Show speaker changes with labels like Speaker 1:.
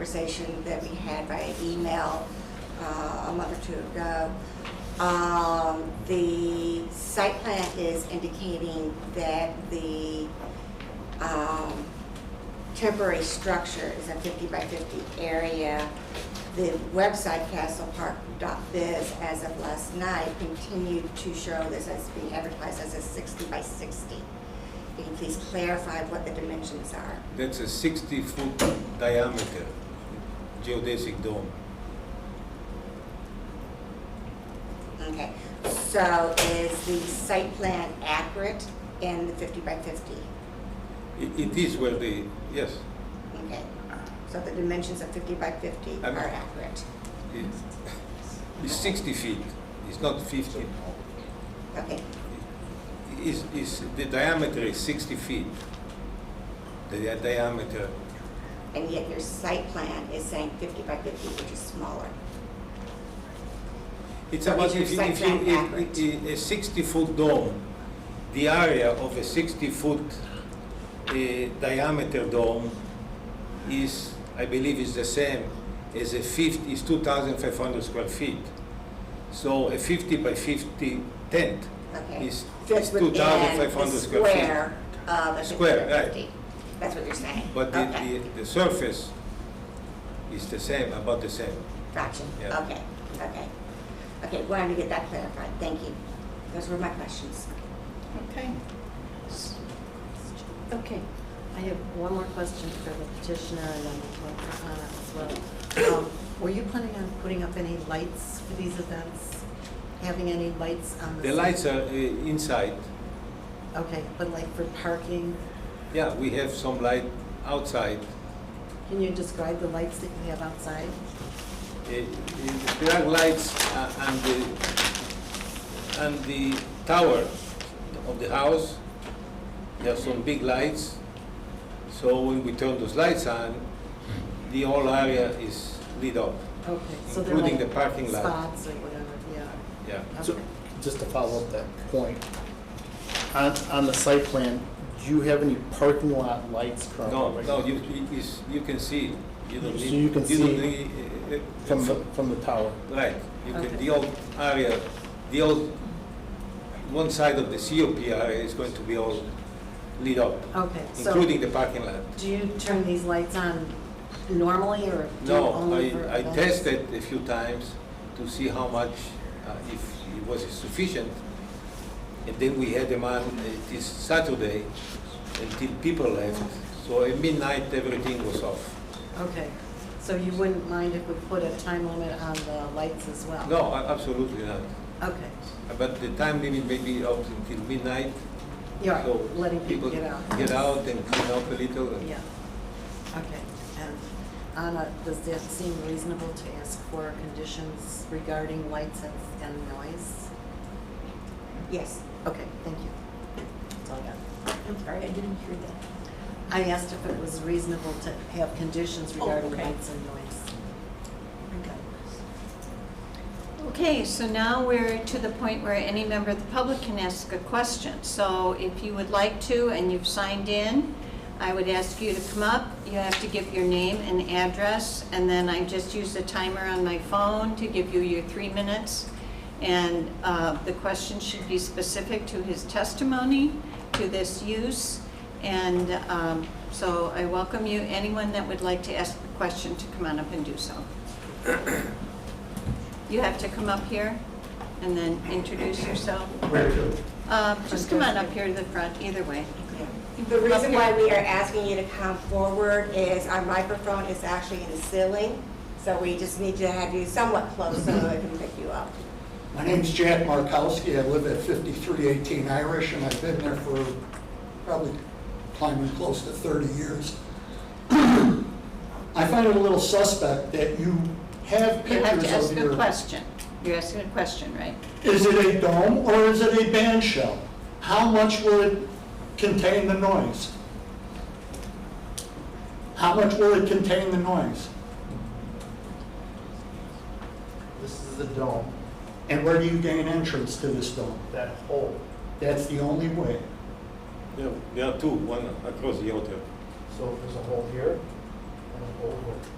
Speaker 1: conversation that we had via email uh, a month or two ago. Um, The site plan is indicating that the um, temporary structure is a 50 by 50 area. The website castlepark.biz as of last night continued to show this as being advertised as a 60 by 60. Can you please clarify what the dimensions are?
Speaker 2: That's a 60-foot diameter geodesic dome.
Speaker 1: Okay, so is the site plan accurate in the 50 by 50?
Speaker 2: It it is where the, yes,
Speaker 1: Okay, so the dimensions of 50 by 50
Speaker 2: Um,
Speaker 1: are accurate?
Speaker 2: it- it's 60 feet, it's not 50.
Speaker 1: Okay,
Speaker 2: Is, is, the diameter is 60 feet, the di- diameter.
Speaker 1: and yet your site plan is saying 50 by 50, which is smaller.
Speaker 2: It's
Speaker 1: So
Speaker 2: about,
Speaker 1: is your
Speaker 2: if you,
Speaker 1: site
Speaker 2: if you,
Speaker 1: plan
Speaker 2: if-
Speaker 1: accurate?
Speaker 2: i- i- a 60-foot dome, the area of a 60-foot uh, diameter dome is, I believe, is the same as a 50, is 2,500 square feet. So a 50 by 50 tent
Speaker 1: Okay.
Speaker 2: is
Speaker 1: Fits
Speaker 2: is
Speaker 1: within the
Speaker 2: 2,500 square feet.
Speaker 1: square of the 50
Speaker 2: Square,
Speaker 1: by
Speaker 2: right.
Speaker 1: 50. That's what you're saying?
Speaker 2: But the,
Speaker 1: Okay.
Speaker 2: the, the surface is the same, about the same.
Speaker 1: Gotcha,
Speaker 2: Yeah.
Speaker 1: okay, okay. Okay, wanted to get that clarified, thank you. Those were my questions.
Speaker 3: Okay.
Speaker 4: Okay, I have one more question for the petitioner and then one for Anna as well. Um, Were you planning on putting up any lights for these events? Having any lights on the?
Speaker 2: The lights are uh, inside.
Speaker 4: Okay, but like for parking,
Speaker 2: Yeah, we have some light outside.
Speaker 4: can you describe the lights that you have outside?
Speaker 2: Uh, uh, There are lights uh, on the, on the tower of the house. There are some big lights. So when we turn those lights on, the whole area is lit up.
Speaker 4: Okay, so they're
Speaker 2: Including
Speaker 4: like
Speaker 2: the parking lot.
Speaker 4: Spots or whatever, yeah.
Speaker 2: Yeah.
Speaker 5: So,
Speaker 4: Okay.
Speaker 5: just to follow up that point, on, on the site plan, do you have any parking lot lights currently?
Speaker 2: No,
Speaker 5: right?
Speaker 2: no, you, you- is- you can see. You don't
Speaker 5: So
Speaker 2: need.
Speaker 5: you can
Speaker 2: don't
Speaker 5: see
Speaker 2: need, uh, uh,
Speaker 5: From the,
Speaker 2: from-
Speaker 5: from the tower?
Speaker 2: Right, you can,
Speaker 4: Okay.
Speaker 2: the old area, the old, one side of the COP area is going to be all lit up,
Speaker 4: Okay, so
Speaker 2: including the parking lot.
Speaker 4: do you turn these lights on normally or do you
Speaker 2: No,
Speaker 4: only for
Speaker 2: I, I
Speaker 4: events?
Speaker 2: tested a few times to see how much, uh, if it was sufficient. And then we had them on uh, this Saturday until people left, so at midnight, everything was off.
Speaker 4: Okay, so you wouldn't mind if we put a time limit on the lights as well?
Speaker 2: No, a- absolutely not.
Speaker 4: Okay,
Speaker 2: But the time limit may be up until midnight,
Speaker 4: yeah,
Speaker 2: So
Speaker 4: letting people get out.
Speaker 2: Get out and clean up a little. and-
Speaker 4: Yeah, okay. And Anna, does that seem reasonable to ask for conditions regarding lights and- and noise?
Speaker 1: Yes,
Speaker 4: Okay, thank you. That's all I got.
Speaker 3: I'm sorry, I didn't hear that.
Speaker 4: I asked if it was reasonable to have conditions
Speaker 3: Oh,
Speaker 4: regarding
Speaker 3: okay.
Speaker 4: lights and noise.
Speaker 3: Okay, so now we're to the point where any member of the public can ask a question. So if you would like to and you've signed in, I would ask you to come up. You have to give your name and address, and then I just use the timer on my phone to give you your three minutes. And uh, the question should be specific to his testimony, to this use. And um, so I welcome you, anyone that would like to ask a question, to come on up and do so. You have to come up here and then introduce yourself. Where to? Just come on up here to the front, either way.
Speaker 1: okay. The reason why we are asking you to come forward is our microphone is actually in the ceiling, so we just need to have you somewhat close so that we can pick you up.
Speaker 6: My name's Jack Markowski. I live at 5318 Irish, and I've been there for probably climbing close to 30 years. I find it a little suspect that you have
Speaker 3: You have to
Speaker 6: pictures
Speaker 3: ask
Speaker 6: of
Speaker 3: a
Speaker 6: your...
Speaker 3: question. You're asking a question, right?
Speaker 6: Is it a dome or is it a band shell? How much will it contain the noise? How much will it contain the noise?
Speaker 7: This is the dome,
Speaker 6: And where do you gain entrance to this dome?
Speaker 7: that hole.
Speaker 6: That's the only way.
Speaker 2: Yeah, There are two, one across the other.
Speaker 7: So there's a hole here and a hole here.